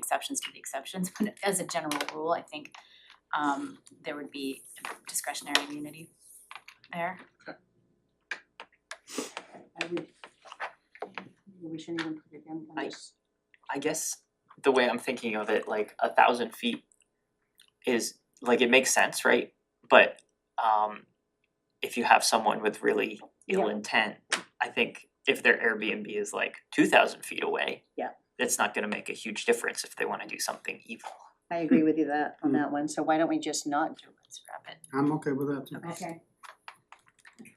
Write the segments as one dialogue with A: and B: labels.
A: exceptions to the exceptions, but as a general rule, I think um there would be discretionary immunity there.
B: I would, we shouldn't even put it in,
C: I-
B: I'm just,
C: I guess the way I'm thinking of it, like a thousand feet is like it makes sense, right? But um if you have someone with really ill
B: Yeah.
C: intent, I think if their Airbnb is like two thousand feet away.
B: Yeah.
C: It's not gonna make a huge difference if they wanna do something evil.
B: I agree with you that, on
D: Mm.
B: that one, so why don't we just not do it?
A: Let's wrap it.
D: I'm okay with that too.
B: Okay.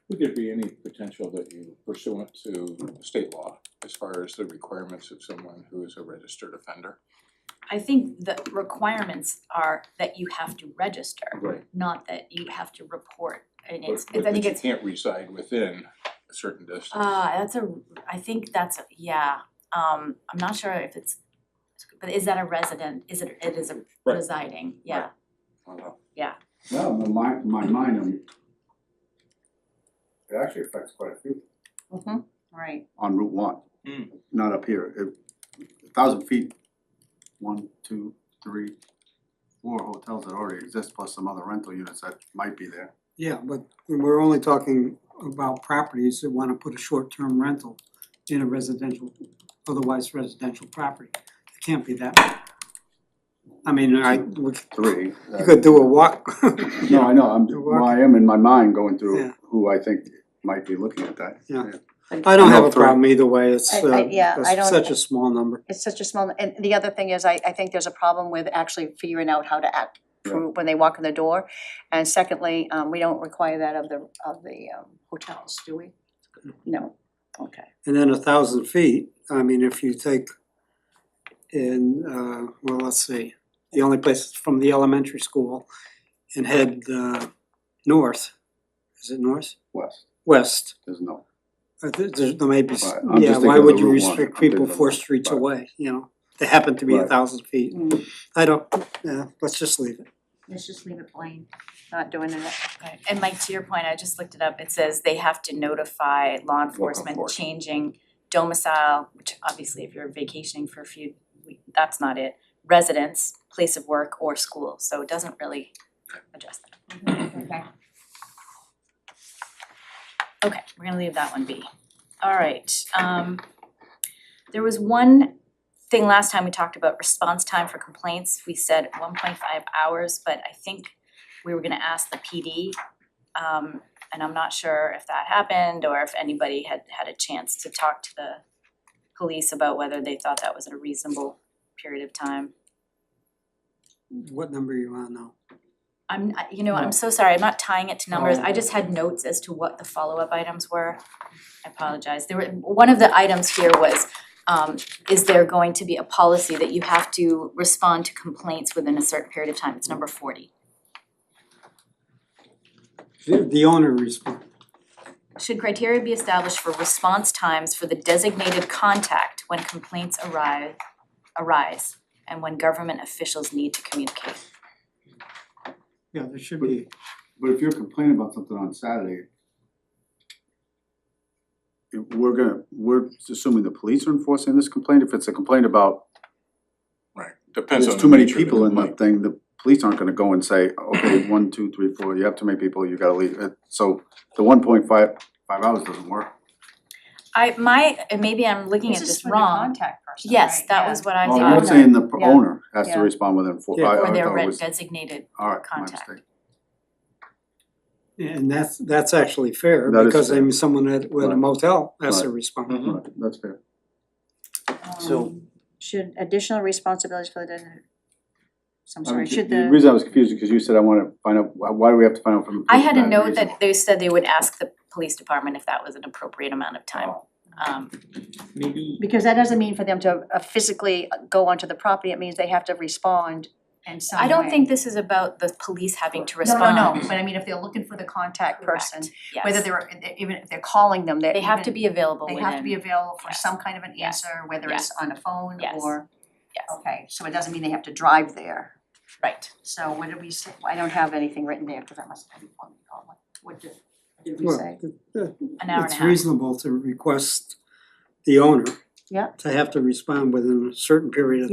E: Would there be any potential that you pursuant to state law as far as the requirements of someone who is a registered offender?
A: I think the requirements are that you have to register,
E: Right.
A: not that you have to report. And
E: But
A: it's,
E: but
A: I think
E: that you
A: it's,
E: can't reside within a certain distance.
A: ah, that's a, I think that's, a- yeah, um I'm not sure if it's, but is that a resident, is it, it is a
E: Right.
A: residing, yeah.
E: I don't know.
F: Well, in my, in my mind, I'm, it actually affects quite a few
B: Mm-hmm, right,
F: on Route one.
D: Hmm.
C: Mm.
F: Not up here, It- a thousand feet, one, two, three, four hotels that already exist, plus some other rental units that might be there.
D: Yeah, but we're only talking about properties that wanna put a short-term rental in a residential, otherwise residential property. It can't be that. I mean, I, we could-
F: Three.
D: you could do a walk.
F: No, I know, I'm,
D: You're
F: well, I am in my mind going
D: Yeah.
F: through who I think might be looking at that.
D: Yeah. I don't have a problem either way, it's
B: I- I-
D: uh,
B: yeah, I
D: it's
B: don't-
D: such a small number.
B: it's such a small, and the other thing is, I, I think there's a problem with actually figuring out how to act,
F: Yeah.
B: prove when they walk in the door. And secondly, um, we don't require that of the, of the um, hotels, do we? No, okay.
D: And then a thousand feet, I mean, if you take in, uh, well, let's see, the only place is from the elementary school and head, uh, north, is it north?
F: West,
D: West,
F: there's no,
D: Uh, there, there- there may be, s-
F: Right, I'm
D: yeah,
F: just
D: why
F: thinking of
D: would
F: the
D: you
F: Route one,
D: restrict
F: I'm thinking
D: people
F: of
D: four
F: the-
D: streets
F: right.
D: away, you know? They happen to be a
F: Right.
D: thousand feet, I don't, yeah, let's just leave it.
B: Mm, Let's just leave it plain, not doing it.
A: Right, and Mike, to your point, I just looked it up, it says they have to notify law enforcement
E: enforcement.
A: changing domicile, which obviously if you're vacationing for a few, we- that's not it. Residence, place of work or school, so it doesn't really address that.
B: Okay.
A: Okay, we're gonna leave that one be. Alright, um there was one thing last time we talked about response time for complaints. We said one point five hours, but I think we were gonna ask the PD. Um and I'm not sure if that happened or if anybody had had a chance to talk to the police about whether they thought that was a reasonable period of time.
D: What number you want now?
A: I'm, I- you know, I'm so sorry, I'm not tying it to numbers, I just had notes as to what the follow-up items were. I apologize, there were, one of the items here was, um, is there going to be a policy that you have to respond to complaints within a certain period of time, it's number forty.
D: The the owner responds.
A: Should criteria be established for response times for the designated contact when complaints arrive, arise, and when government officials need to communicate?
D: yeah, there should
F: But-
D: be,
F: But if you're complaining about something on Saturday, if we're gonna, we're assuming the police are enforcing this complaint, if it's a complaint about
E: Right, depends on
F: there's
E: the
F: too many
E: nature of the
F: people in the
E: complaint.
F: thing, the police aren't gonna go and say, okay, one, two, three, four, you have too many people, you gotta leave, Uh, so the one point five, five hours doesn't work.
A: I, my, and maybe I'm looking at
B: This is
A: this
B: for the
A: wrong,
B: contact person,
A: yes,
B: right?
A: that
B: Yeah.
A: was what I
F: Well,
A: thought.
F: I'm not saying the
B: Yeah.
F: owner has to
B: Yeah.
F: respond within four,
D: Yeah.
F: I, I
A: Or their
F: thought it
A: re-
F: was,
A: designated
F: alright, my
A: contact.
F: mistake.
D: and that's, that's actually fair,
F: That is
D: because I
F: fair.
D: mean, someone at, with a
F: Right.
D: motel has to
F: Right. Mm-hmm.
D: respond.
F: Right, That's fair.
C: So-
B: Um, Should additional responsibilities for the, so I'm
F: I mean,
B: sorry, should
F: Um, the
B: the,
F: reason I was confused, is because you said I wanna find out, why, why do we have to find out from the
A: I
F: police
A: had a
F: about
A: note
F: reasonable?
A: that they said they would ask the police department if that was an appropriate amount of time.
B: Oh,
A: Um,
C: Maybe
B: because that doesn't mean for them to uh, physically go onto the property, it means they have to respond in some
A: I don't
B: way.
A: think this is about the police having to
B: No,
A: respond.
B: no, no, but I mean, if they're looking for the contact person,
A: Correct, yes.
B: whether they're, uh, even if they're calling them, they're
A: They have to
B: even-
A: be available
B: They
A: within.
B: have to be available for
A: Yes.
B: some kind of an
A: Yes.
B: answer, whether
A: Yes.
B: it's on a phone
A: Yes.
B: or,
A: Yes,
B: okay, so it doesn't mean they have to drive there.
A: right.
B: So what did we say, I don't have anything written there, cause that must have been on the call. what did, did we
D: Well,
B: say?
D: it- it-
A: An hour and a
D: It's
A: half.
D: reasonable to request the owner
B: Yeah.
D: to have to respond within a certain period of